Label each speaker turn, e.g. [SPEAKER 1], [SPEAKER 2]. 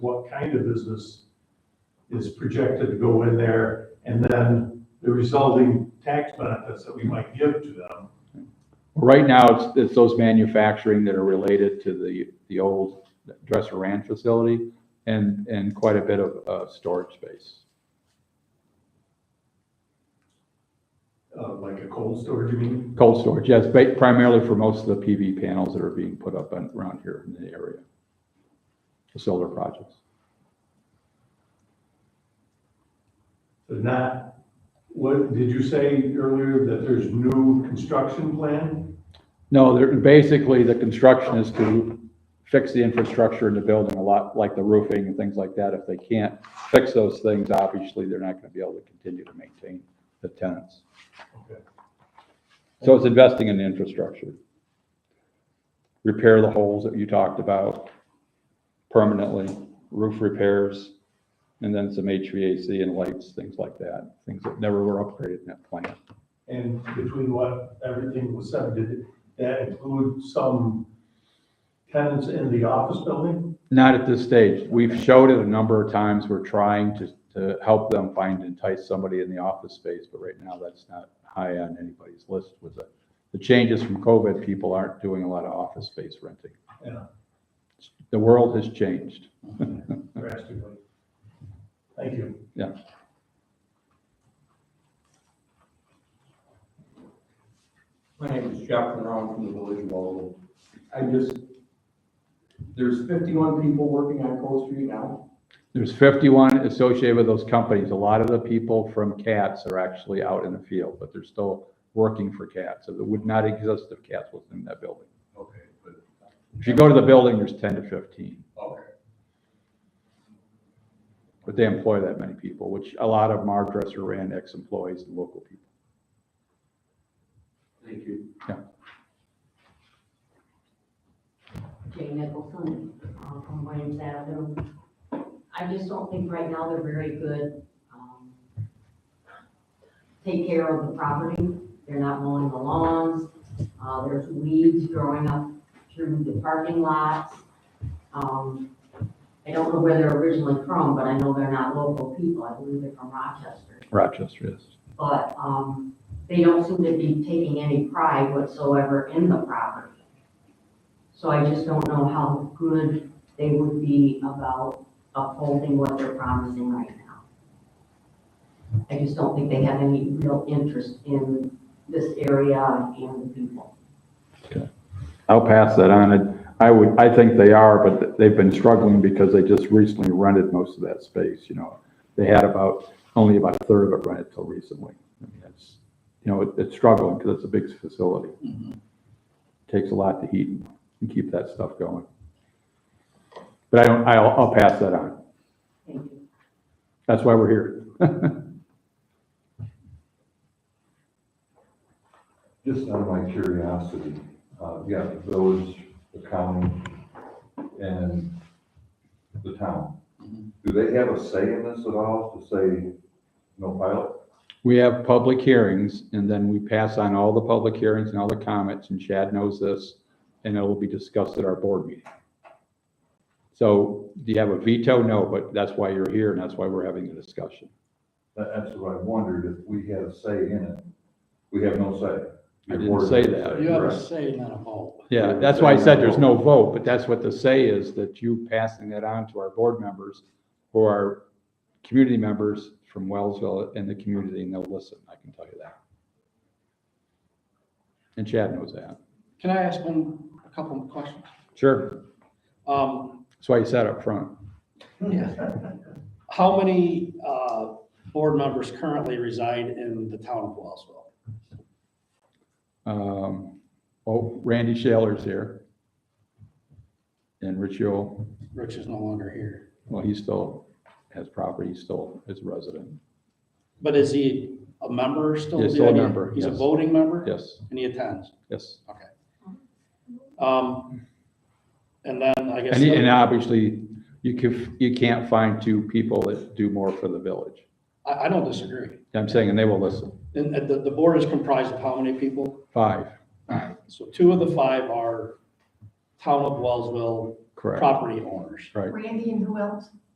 [SPEAKER 1] what kind of business is projected to go in there, and then the resulting tax benefits that we might give to them.
[SPEAKER 2] Right now, it's, it's those manufacturing that are related to the, the old Dresser Ranch facility and, and quite a bit of, uh, storage space.
[SPEAKER 1] Uh, like a cold storage, you mean?
[SPEAKER 2] Cold storage, yes, ba- primarily for most of the PV panels that are being put up on- around here in the area. The solar projects.
[SPEAKER 1] So not, what, did you say earlier that there's new construction plan?
[SPEAKER 2] No, they're, basically, the construction is to fix the infrastructure in the building, a lot like the roofing and things like that. If they can't fix those things, obviously, they're not gonna be able to continue to maintain the tenants.
[SPEAKER 1] Okay.
[SPEAKER 2] So it's investing in the infrastructure. Repair the holes that you talked about permanently, roof repairs, and then some HVAC and lights, things like that, things that never were upgraded in that plant.
[SPEAKER 1] And between what everything was said, did that include some tenants in the office building?
[SPEAKER 2] Not at this stage. We've showed it a number of times. We're trying to, to help them find, entice somebody in the office space, but right now that's not high on anybody's list with the, the changes from COVID. People aren't doing a lot of office space renting.
[SPEAKER 1] Yeah.
[SPEAKER 2] The world has changed.
[SPEAKER 1] drastically. Thank you.
[SPEAKER 2] Yeah.
[SPEAKER 3] My name is Jeff Brown from the Village of Alden. I just, there's fifty-one people working on Cold Street now.
[SPEAKER 2] There's fifty-one associated with those companies. A lot of the people from CATS are actually out in the field, but they're still working for CATS. So it would not exist if CATS was in that building.
[SPEAKER 3] Okay, but,
[SPEAKER 2] If you go to the building, there's ten to fifteen.
[SPEAKER 3] okay.
[SPEAKER 2] But they employ that many people, which a lot of them are dresser ran ex-employees and local people.
[SPEAKER 3] Thank you.
[SPEAKER 4] Jay Nicholson, uh, from Williams Avenue. I just don't think right now they're very good, um, take care of the property. They're not mowing the lawns. Uh, there's weeds growing up through the parking lots. Um, I don't know where they're originally from, but I know they're not local people. I believe they're from Rochester
[SPEAKER 2] Rochester is.
[SPEAKER 4] but, um, they don't seem to be taking any pride whatsoever in the property. So I just don't know how good they would be about upholding what they're promising right now. I just don't think they have any real interest in this area and the people.
[SPEAKER 2] I'll pass that on. And I would, I think they are, but they've been struggling because they just recently rented most of that space, you know. They had about, only about a third of it rented till recently. I mean, it's, you know, it- it's struggling because it's a big facility. Takes a lot to heat and keep that stuff going. But I don't, I'll, I'll pass that on.
[SPEAKER 4] Thank you.
[SPEAKER 2] That's why we're here.
[SPEAKER 5] Just out of my curiosity, uh, yeah, the village, the county, and the town.
[SPEAKER 2] Mm-hmm.
[SPEAKER 5] Do they have a say in this at all to say no pilot?
[SPEAKER 2] We have public hearings and then we pass on all the public hearings and all the comments and Chad knows this and it will be discussed at our board meeting. So do you have a veto? No, but that's why you're here and that's why we're having the discussion.
[SPEAKER 5] That, that's what I wondered, if we had a say in it. We have no say.
[SPEAKER 2] I didn't say that.
[SPEAKER 6] You have a
[SPEAKER 5] Correct.
[SPEAKER 6] say, not a vote.
[SPEAKER 2] Yeah, that's why I said there's no vote, but that's what the say is, that you passing that on to our board members who are community members from Wellsville and the community and they'll listen, I can tell you that. And Chad knows that.
[SPEAKER 6] Can I ask one, a couple of questions?
[SPEAKER 2] Sure.
[SPEAKER 6] Um,
[SPEAKER 2] That's why you said up front.
[SPEAKER 6] how many, uh, board members currently reside in the town of Wellsville?
[SPEAKER 2] Um, oh, Randy Shaler's here. And Rich Yule,
[SPEAKER 6] Rich is no longer here,
[SPEAKER 2] well, he still has property, he still is a resident.
[SPEAKER 6] but is he a member still?
[SPEAKER 2] He's still a member,
[SPEAKER 6] He's a
[SPEAKER 2] yes.
[SPEAKER 6] voting member?
[SPEAKER 2] Yes,
[SPEAKER 6] And he attends,
[SPEAKER 2] yes.
[SPEAKER 6] um, and then I guess.
[SPEAKER 2] And, he- and obviously, you can, you can't find two people that do more for the village.
[SPEAKER 6] I, I don't disagree,
[SPEAKER 2] I'm saying, and they will listen.
[SPEAKER 6] and, and the, the board is comprised of how many people?
[SPEAKER 2] Five,
[SPEAKER 6] So two of the five are town of Wellsville
[SPEAKER 7] correct.
[SPEAKER 8] property owners.
[SPEAKER 7] Right.
[SPEAKER 6] Randy and who else?